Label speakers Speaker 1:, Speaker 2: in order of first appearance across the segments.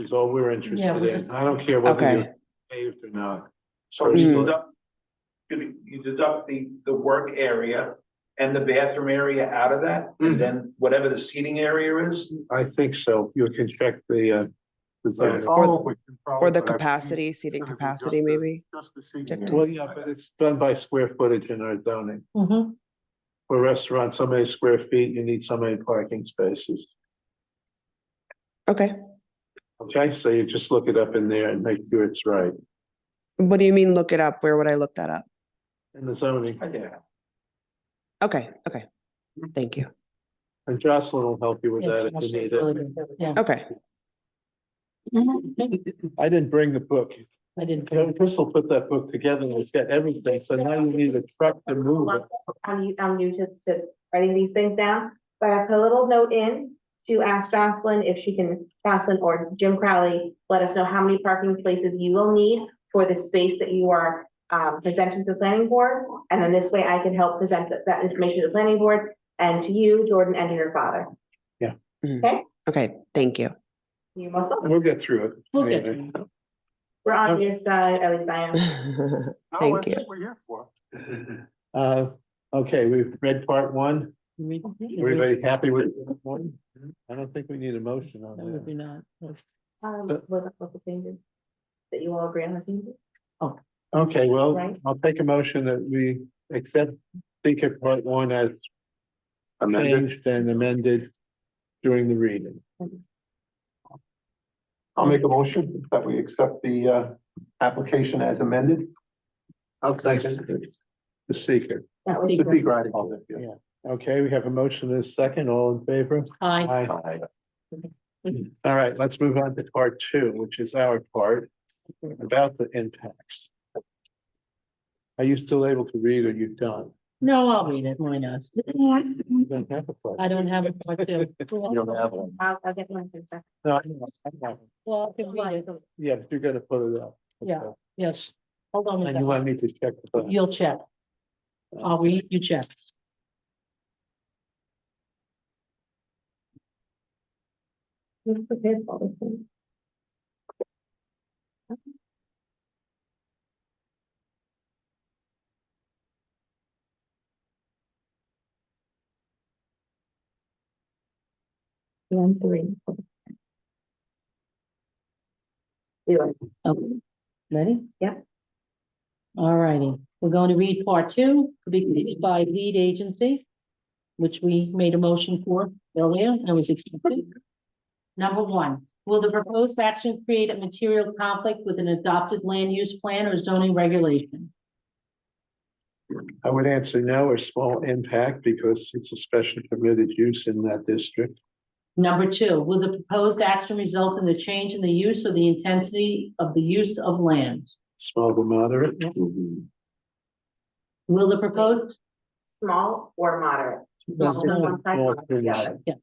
Speaker 1: is all we're
Speaker 2: Yeah,
Speaker 1: interested
Speaker 2: we're
Speaker 1: in.
Speaker 2: just-
Speaker 1: I don't care whether
Speaker 3: Okay.
Speaker 1: you're paved or not.
Speaker 4: So you
Speaker 3: Mm.
Speaker 4: deduct, you you deduct the, the work area and the bathroom area out of that,
Speaker 1: Mhm.
Speaker 4: and then whatever the seating area is,
Speaker 1: I think so. You can check the, uh, design.
Speaker 3: Or the capacity, seating capacity, maybe? Different.
Speaker 1: Well, yeah, but it's done by square footage in our zoning.
Speaker 2: Mm-hmm.
Speaker 1: For restaurants, so many square feet, you need so many parking spaces.
Speaker 3: Okay.
Speaker 1: Okay, so you just look it up in there and make sure it's right
Speaker 3: What do you mean, look it up? Where would I look that up?
Speaker 1: in the zoning.
Speaker 4: yeah.
Speaker 3: Okay, okay. Thank you.
Speaker 1: And Jocelyn will help you with that if you need it.
Speaker 2: Yeah,
Speaker 3: Okay.
Speaker 1: I didn't bring the book.
Speaker 2: I didn't.
Speaker 1: Yeah, Chris will put that book together and it's got everything, so now you need a truck to move it.
Speaker 5: I'm, new- I'm new to, to writing these things down, but I put a little note in to ask Jocelyn if she can, Jocelyn or Jim Crowley, let us know how many parking places you will need for the space that you are, um, presenting to the planning board. And then this way I can help present that, that information to the planning board and to you, Jordan, and to your father.
Speaker 3: Okay, thank you.
Speaker 5: You're most welcome.
Speaker 1: We'll get through it.
Speaker 2: We'll get
Speaker 1: Anyway.
Speaker 5: We're on your side, at least I am.
Speaker 1: No,
Speaker 3: Thank
Speaker 1: that's
Speaker 3: you.
Speaker 1: what We're here for. Uh, okay, we've read part one. Everybody happy with part one? I don't think we need a motion on that.
Speaker 5: Um,
Speaker 1: But-
Speaker 5: what about the changes? That you all agree on the changes?
Speaker 1: Okay, well,
Speaker 5: Right.
Speaker 1: I'll take a motion that we accept Seeker part one as changed and amended during the reading.
Speaker 6: I'll make a motion that we accept the uh application as amended. I'll second.
Speaker 1: The seeker.
Speaker 5: That was-
Speaker 6: The big writing.
Speaker 2: Yeah.
Speaker 1: Okay, we have a motion and a second. All in favor?
Speaker 2: Hi.
Speaker 1: Aye. All right, let's move on to part two, which is our part about the impacts. Are you still able to read or you done?
Speaker 2: No, I'll read it. Why not?
Speaker 1: You don't have a part.
Speaker 2: I don't have a part two.
Speaker 5: I'll, I'll get one. thing back.
Speaker 1: No, I know, I know.
Speaker 2: Well, I can read it.
Speaker 1: Yeah, but you're gonna put it up.
Speaker 2: Yeah. Yes. Hold on a
Speaker 1: And you
Speaker 2: second.
Speaker 1: want me to check the button?
Speaker 2: You'll check. I'll read, you check.
Speaker 5: Who's prepared for all this thing? One, three. four. You are-
Speaker 2: Okay. Ready?
Speaker 5: Yeah.
Speaker 2: All righty, we're going to read part two, to be completed by lead agency, which we made a motion for earlier and was accepted. Number one, will the proposed action create a material conflict with an adopted land use plan or zoning regulation?
Speaker 1: I would answer no or small impact because it's a special permitted use in that district.
Speaker 2: Number two, will the proposed action result in a change in the use or the intensity of the use of land?
Speaker 1: Small to moderate.
Speaker 2: Will the proposed
Speaker 5: Small or moderate?
Speaker 1: That's
Speaker 5: Small on one side,
Speaker 1: small
Speaker 5: moderate on the
Speaker 1: to
Speaker 5: other.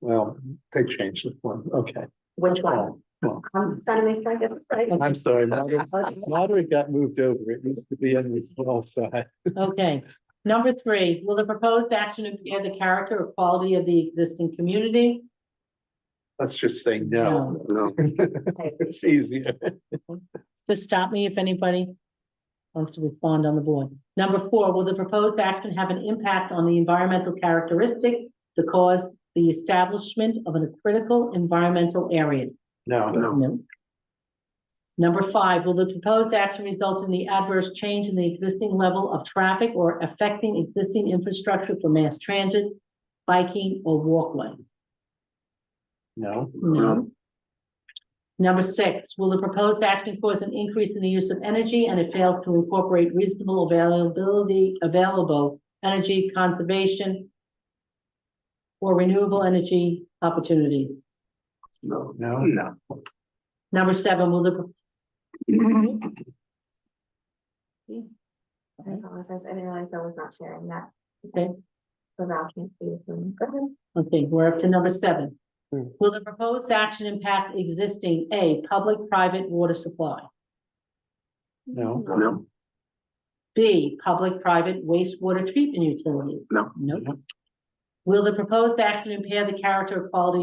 Speaker 1: Well, they changed this one. Okay,
Speaker 5: Which one?
Speaker 1: Small.
Speaker 5: I'm trying to make sure I get this right.
Speaker 1: I'm sorry. moderate- Moderate got moved over. It used to be on the small side.
Speaker 2: Okay, number three, will the proposed action impair the character or quality of the existing community?
Speaker 1: Let's just say no.
Speaker 6: No.
Speaker 1: It's easier.
Speaker 2: Just stop me if anybody wants to respond on the board. Number four, will the proposed action have an impact on the environmental characteristic that caused the establishment of a critical environmental area?
Speaker 1: No,
Speaker 2: No. Number five, will the proposed action result in the adverse change in the existing level of traffic or affecting existing infrastructure for mass transit, biking, or walkway?
Speaker 1: no,
Speaker 2: No. Number six, will the proposed action cause an increase in the use of energy and it fails to incorporate reasonable availability, available energy conservation or renewable energy opportunities?
Speaker 6: No.
Speaker 1: no.
Speaker 6: No.
Speaker 2: Number seven, will the,
Speaker 5: I apologize. I didn't realize I was not sharing that.
Speaker 2: Okay.
Speaker 5: So now I can't see this one. Go ahead.
Speaker 2: okay, we're up to number seven.
Speaker 1: Hmm.
Speaker 2: Will the proposed action impact existing, A, public-private water supply?
Speaker 1: No.
Speaker 6: No.
Speaker 2: B, public-private wastewater treatment utilities?
Speaker 6: No.
Speaker 2: Nope. Will the proposed action impair the character or quality